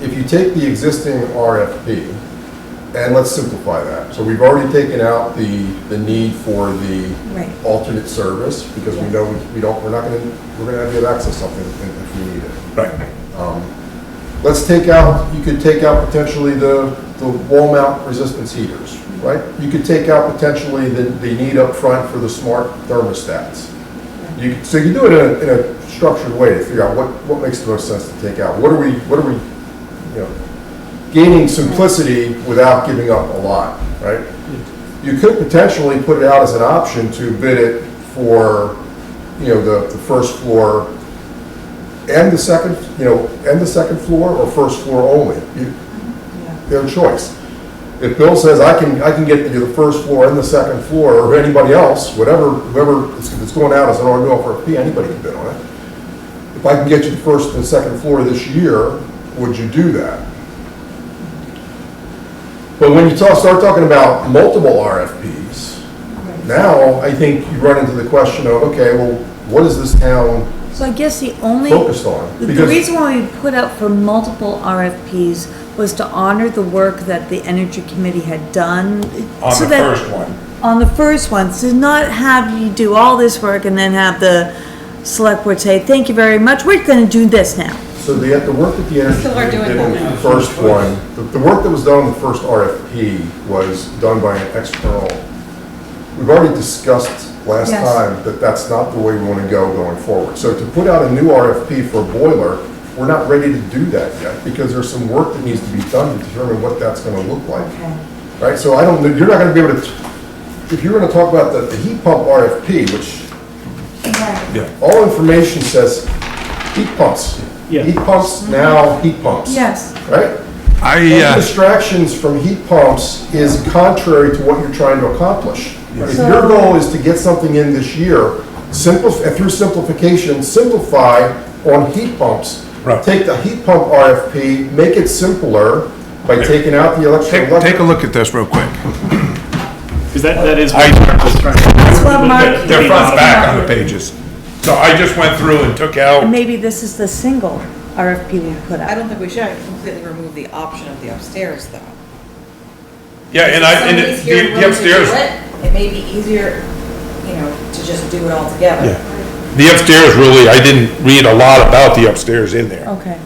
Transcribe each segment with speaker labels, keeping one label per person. Speaker 1: if you take the existing RFP, and let's simplify that, so we've already taken out the, the need for the
Speaker 2: Right.
Speaker 1: alternate service, because we know we don't, we're not gonna, we're gonna have to have access to something if if we need it. Um,
Speaker 3: Right.
Speaker 1: Let's take out, you could take out potentially the, the wall mount resistance heaters, right? You could take out potentially the, the need up front for the smart thermostats. You, so you do it in a, in a structured way to figure out what, what makes the most sense to take out. What are we, what are we, you know, gaining simplicity without giving up a lot, right? You could potentially put it out as an option to bid it for, you know, the, the first floor and the second, you know, and the second floor or first floor only. You- Their choice. If Bill says, I can, I can get you the first floor and the second floor, or anybody else, whatever, whoever, if it's going out as an RFP, RFP, anybody can bid on it. If I can get you the first and second floor this year, would you do that? But when you talk, start talking about multiple RFPs, now I think you run into the question of, okay, well, what is this town
Speaker 2: So I guess the only,
Speaker 1: focused on?
Speaker 2: the- the
Speaker 1: Because-
Speaker 2: reason why we put up for multiple RFPs was to honor the work that the Energy Committee had done.
Speaker 3: On
Speaker 2: so
Speaker 3: the
Speaker 2: that-
Speaker 3: first one.
Speaker 2: On the first one, to not have you do all this work and then have the select board say, thank you very much, we're gonna do this now.
Speaker 1: So the, the work that the energy
Speaker 4: Still are
Speaker 1: committee
Speaker 4: doing
Speaker 1: did
Speaker 4: that
Speaker 1: on the
Speaker 4: now.
Speaker 1: first one, the, the work that was done on the first RFP was done by an external. We've already discussed last
Speaker 2: Yes.
Speaker 1: time that that's not the way we want to go going forward. So to put out a new RFP for a boiler, we're not ready to do that yet because there's some work that needs to be done to determine what that's going to look like right? So I don't, know- you're not gonna be able to, if you're gonna talk about the, the heat pump RFP, which
Speaker 3: Yeah.
Speaker 1: all information says heat pumps.
Speaker 5: Yeah.
Speaker 1: Heat pumps, now heat pumps.
Speaker 2: Yes.
Speaker 1: Right?
Speaker 3: I,
Speaker 1: Any
Speaker 3: uh,
Speaker 1: distractions from heat pumps is contrary to what you're trying to accomplish. If your goal is to get something in this year, simplify, through simplification, simplify on heat pumps.
Speaker 3: Right.
Speaker 1: Take the heat pump RFP, make it simpler by taking out the electric.
Speaker 3: take, take a look at this real quick.
Speaker 5: Because that, that is.
Speaker 3: I-
Speaker 2: That's what Mark.
Speaker 3: They're front back on the pages. So I just went through and took
Speaker 2: And
Speaker 3: out,
Speaker 2: maybe this is the single RFP we put
Speaker 4: I
Speaker 2: out.
Speaker 4: don't think we should completely remove the option of the upstairs, though.
Speaker 3: yeah, and I, and
Speaker 6: Somebody's
Speaker 3: it-
Speaker 6: here
Speaker 3: the- the
Speaker 6: willing to do
Speaker 3: upstairs,
Speaker 6: it, It may be easier, you know, to just do it all together.
Speaker 3: Yeah. the upstairs really, I didn't read a lot about the upstairs in there.
Speaker 2: Okay.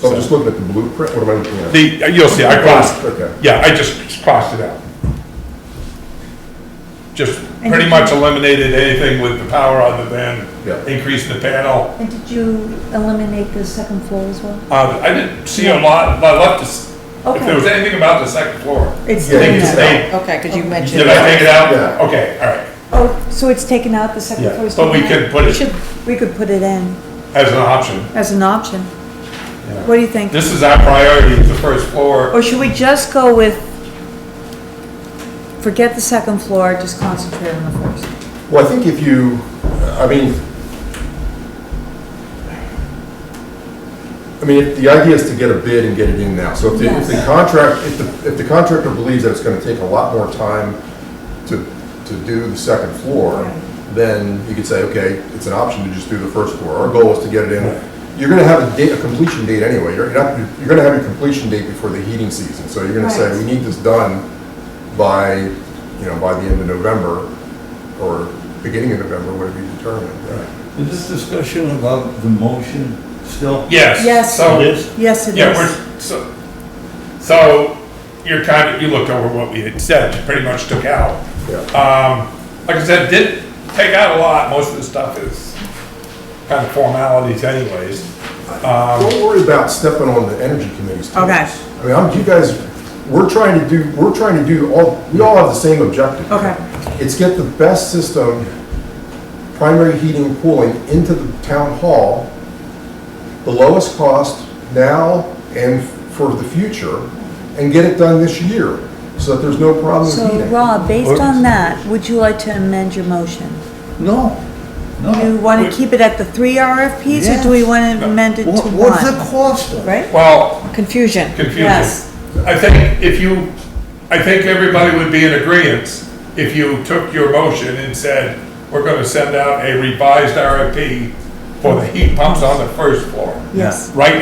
Speaker 1: So I'm just looking at the blueprint, what am I looking at?
Speaker 3: The, uh, you'll see, I crossed,
Speaker 1: Okay.
Speaker 3: yeah, I just crossed it out. Just
Speaker 2: And
Speaker 3: pretty
Speaker 2: you-
Speaker 3: much eliminated anything with the power other than
Speaker 1: Yeah.
Speaker 3: increasing the panel.
Speaker 2: And did you eliminate the second floor as well?
Speaker 3: Uh, I didn't see a lot, I left this, if
Speaker 2: Okay.
Speaker 3: there was anything about the second floor.
Speaker 2: It's
Speaker 1: Yeah,
Speaker 2: taken
Speaker 3: you
Speaker 2: out.
Speaker 3: stay-
Speaker 4: Okay, because you mentioned.
Speaker 3: Did I take it out?
Speaker 1: Yeah.
Speaker 3: Okay, all right.
Speaker 2: Oh, so it's taken out, the second floor
Speaker 3: Yeah,
Speaker 2: is taken
Speaker 3: but
Speaker 2: out?
Speaker 3: we could put
Speaker 2: We
Speaker 3: it
Speaker 2: should, we could put it in
Speaker 3: as an option.
Speaker 2: as an option. What do you think?
Speaker 3: This is our priority, the first floor.
Speaker 2: Or should we just go with, forget the second floor, just concentrate on the first?
Speaker 1: Well, I think if you, I mean, I mean, if the idea is to get a bid and get it in now. So if the, if the
Speaker 2: Yes.
Speaker 1: contract, if the, if the contractor believes that it's gonna take a lot more time to, to do the second floor, then you could say, okay, it's an option to just do the first floor. Our goal is to get it in. You're gonna have a date, a completion date anyway. You're not, you're gonna have a completion date before the heating season. So you're gonna say,
Speaker 2: Right.
Speaker 1: we need this done by, you know, by the end of November or beginning of November, whatever you determine. right?
Speaker 7: Is this discussion about the motion still?
Speaker 3: Yes.
Speaker 2: Yes.
Speaker 3: So,
Speaker 7: It is?
Speaker 2: Yes, it
Speaker 3: yeah,
Speaker 2: is.
Speaker 3: we're, so, so you're kind of, you looked over what we had said, you pretty much took out.
Speaker 1: Yeah.
Speaker 3: Um, like I said, did take out a lot. Most of the stuff is kind of formalities anyways. Um,
Speaker 1: Don't worry about stepping on the energy committee's toes.
Speaker 2: Okay.
Speaker 1: I mean, I'm, you guys, we're trying to do, we're trying to do all, we all have the same objective.
Speaker 2: Okay.
Speaker 1: It's get the best system, primary heating and cooling into the town hall, the lowest cost now and for the future, and get it done this year, so that there's no problem with
Speaker 2: So
Speaker 1: heating.
Speaker 2: Rob, based on that, would you like to amend your motion?
Speaker 7: No,
Speaker 2: You
Speaker 7: no.
Speaker 2: want to keep it at the three RFPs or do we want to amend it to
Speaker 7: What-
Speaker 2: one?
Speaker 7: What's the cost of it?
Speaker 2: Right?
Speaker 3: Well,
Speaker 4: Confusion.
Speaker 3: confusion.
Speaker 2: Yes.
Speaker 3: I think if you, I think everybody would be in agreement if you took your motion and said, we're gonna send out a revised RFP for the heat pumps on the first floor.
Speaker 2: Yes.
Speaker 3: Right